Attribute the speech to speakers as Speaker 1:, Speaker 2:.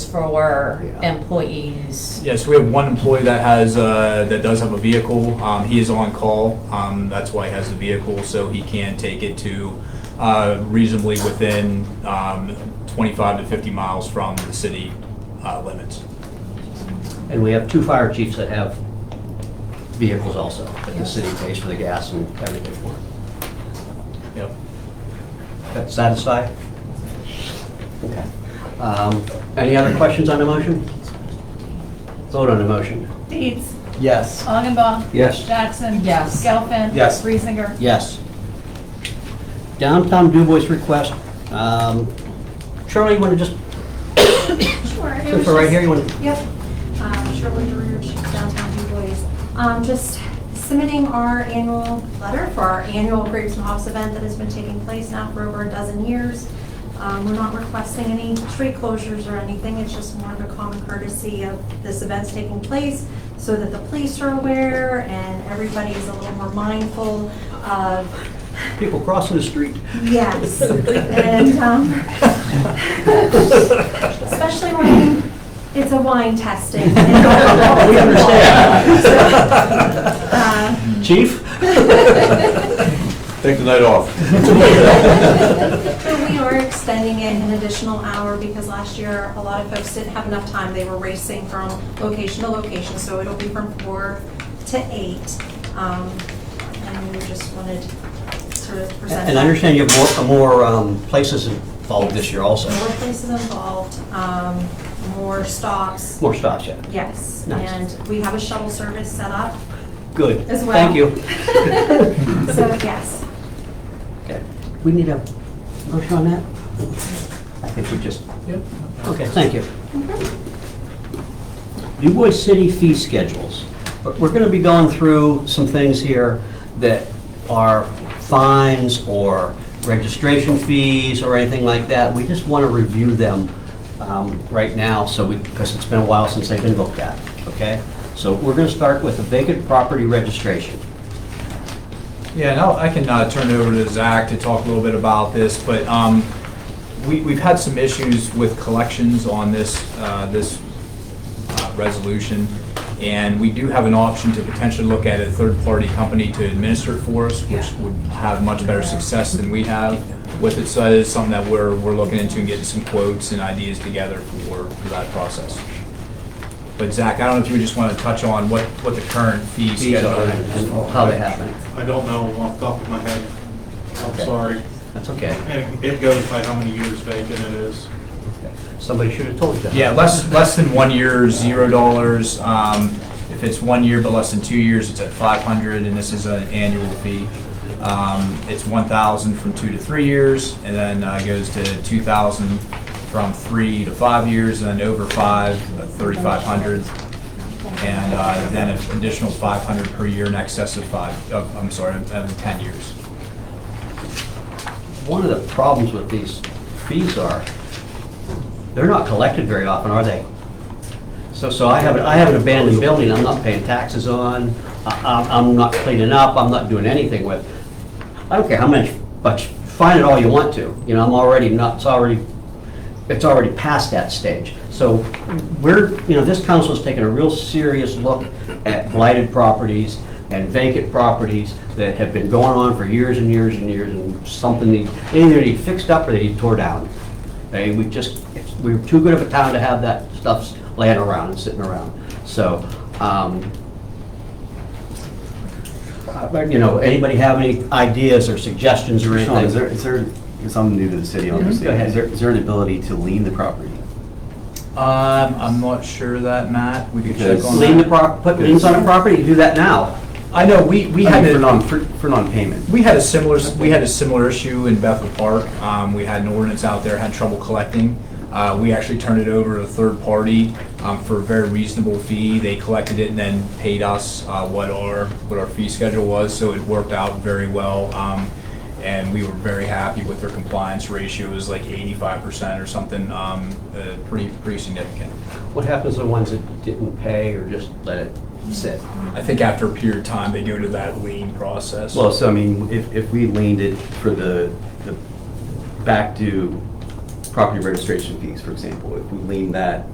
Speaker 1: for
Speaker 2: Yeah.
Speaker 1: employees.
Speaker 3: Yes, we have one employee that has, uh, that does have a vehicle. Um, He is on call, Um, that's why he has the vehicle, so he can take it to uh, reasonably within um, 25 to 50 miles from the city uh, limits.
Speaker 2: And we have two fire chiefs that have vehicles also, that the city pays for the gas and everything for.
Speaker 3: Yep.
Speaker 2: That satisfy? Okay. Um, Any other questions on the motion? Vote on the motion.
Speaker 4: Deeds.
Speaker 2: Yes.
Speaker 4: Augenbaum.
Speaker 2: Yes.
Speaker 4: Jackson.
Speaker 1: Yes.
Speaker 4: Gelfen.
Speaker 2: Yes.
Speaker 4: Reesinger.
Speaker 2: Yes. Downtown Dubois request. Um, Shirley, you want to just,
Speaker 5: Sure. it
Speaker 2: since
Speaker 5: was
Speaker 2: we're right
Speaker 5: just-
Speaker 2: here, you want to
Speaker 5: Yep. Um, Shirley George, downtown Du Bois. Um, Just submitting our annual letter for our annual Grapes and Hops event that has been taking place now for over a dozen years. Um, We're not requesting any street closures or anything. It's just more of a common courtesy of this event's taking place so that the police are aware and everybody's a little more mindful of
Speaker 2: people crossing the street?
Speaker 5: Yes, and, um, especially when it's a wine testing.
Speaker 2: We understand.
Speaker 5: Uh,
Speaker 2: Chief?
Speaker 6: Take the night off.
Speaker 5: But we are extending it an additional hour because last year, a lot of folks didn't have enough time. They were racing from location to location, so it'll be from four to eight. Um, And we just wanted to sort of present.
Speaker 2: And I
Speaker 5: that.
Speaker 2: understand you have more, more um, places involved this year also.
Speaker 5: More places involved, um, more stops,
Speaker 2: More stops, yeah.
Speaker 5: yes.
Speaker 2: Nice.
Speaker 5: And we have a shuttle service set up
Speaker 2: Good.
Speaker 5: as well.
Speaker 2: Thank you.
Speaker 5: So, yes.
Speaker 2: Okay. We need a motion on that? I think we just,
Speaker 3: Yep.
Speaker 2: okay, thank you. Dubois City fee schedules. But We're going to be going through some things here that are fines or registration fees or anything like that. We just want to review them um, right now, so we, because it's been a while since they've been looked at, okay? So we're going to start with the vacant property registration.
Speaker 3: Yeah, and I'll- I can uh, turn it over to Zach to talk a little bit about this, but um, we- we've had some issues with collections on this, uh, this uh, resolution, and we do have an option to potentially look at a third-party company to administer it for us, which would have much better success than we have with it, so that is something that we're, we're looking into and getting some quotes and ideas together for for that process. But Zach, I don't know if you just want to touch on what, what the current fee schedule is.
Speaker 2: and How they happen.
Speaker 7: I don't know off the top of my head. I'm
Speaker 2: Okay.
Speaker 7: sorry.
Speaker 2: That's okay.
Speaker 7: And it goes by how many years vacant it is.
Speaker 2: Somebody should have told you that.
Speaker 3: Yeah, less, less than one year, zero dollars. Um, if it's one year but less than two years, it's at five hundred, and this is an annual fee. Um, it's one thousand from two to three years, and then uh, goes to two thousand from three to five years, and then over five, uh, thirty-five hundred. And, uh, then an additional five hundred per year in excess of five, oh, I'm sorry, of ten years.
Speaker 2: One of the problems with these fees are, they're not collected very often, are they? So, so I have, an- I have an abandoned building I'm not paying taxes on, I- I'm, I'm not cleaning up, I'm not doing anything with. I don't care how much, but find it all you want to, you know, I'm already not, it's already, it's already past that stage. So we're, you know, this council's taken a real serious look at blighted properties and vacant properties that have been going on for years and years and years, and something need, they either need fixed up or they need tore down. They, we just, it's- we're too good of a town to have that stuff laying around and sitting around. So, um, uh, you know, anybody have any ideas or suggestions or anything?
Speaker 8: Sean, is there, is there, because I'm new to the city, obviously,
Speaker 2: Go ahead.
Speaker 8: is there, is there an ability to lean the property?
Speaker 3: Um, I'm not sure of that, Matt. We could check
Speaker 8: Because-
Speaker 3: on that.
Speaker 2: Lien the prop, put liens on a property, you do that now.
Speaker 3: I know, we, we
Speaker 8: I
Speaker 3: had to.
Speaker 8: mean, for non, for, for non-payment.
Speaker 3: We had a similar, we had a similar issue in Bethel Park. Um, we had an ordinance out there, had trouble collecting. Uh, we actually turned it over to a third party, um, for a very reasonable fee. They collected it and then paid us, uh, what our, what our fee schedule was, so it worked out very well. Um, and we were very happy with their compliance ratio, it was like eighty-five percent or something, um, uh, pretty, pretty significant.
Speaker 2: What happens to the ones that didn't pay or just let it sit?
Speaker 3: I think after a period of time, they go to that lien process.
Speaker 8: Well, so I mean, if, if we leaned it for the, the back due property registration fees, for example, if we leaned that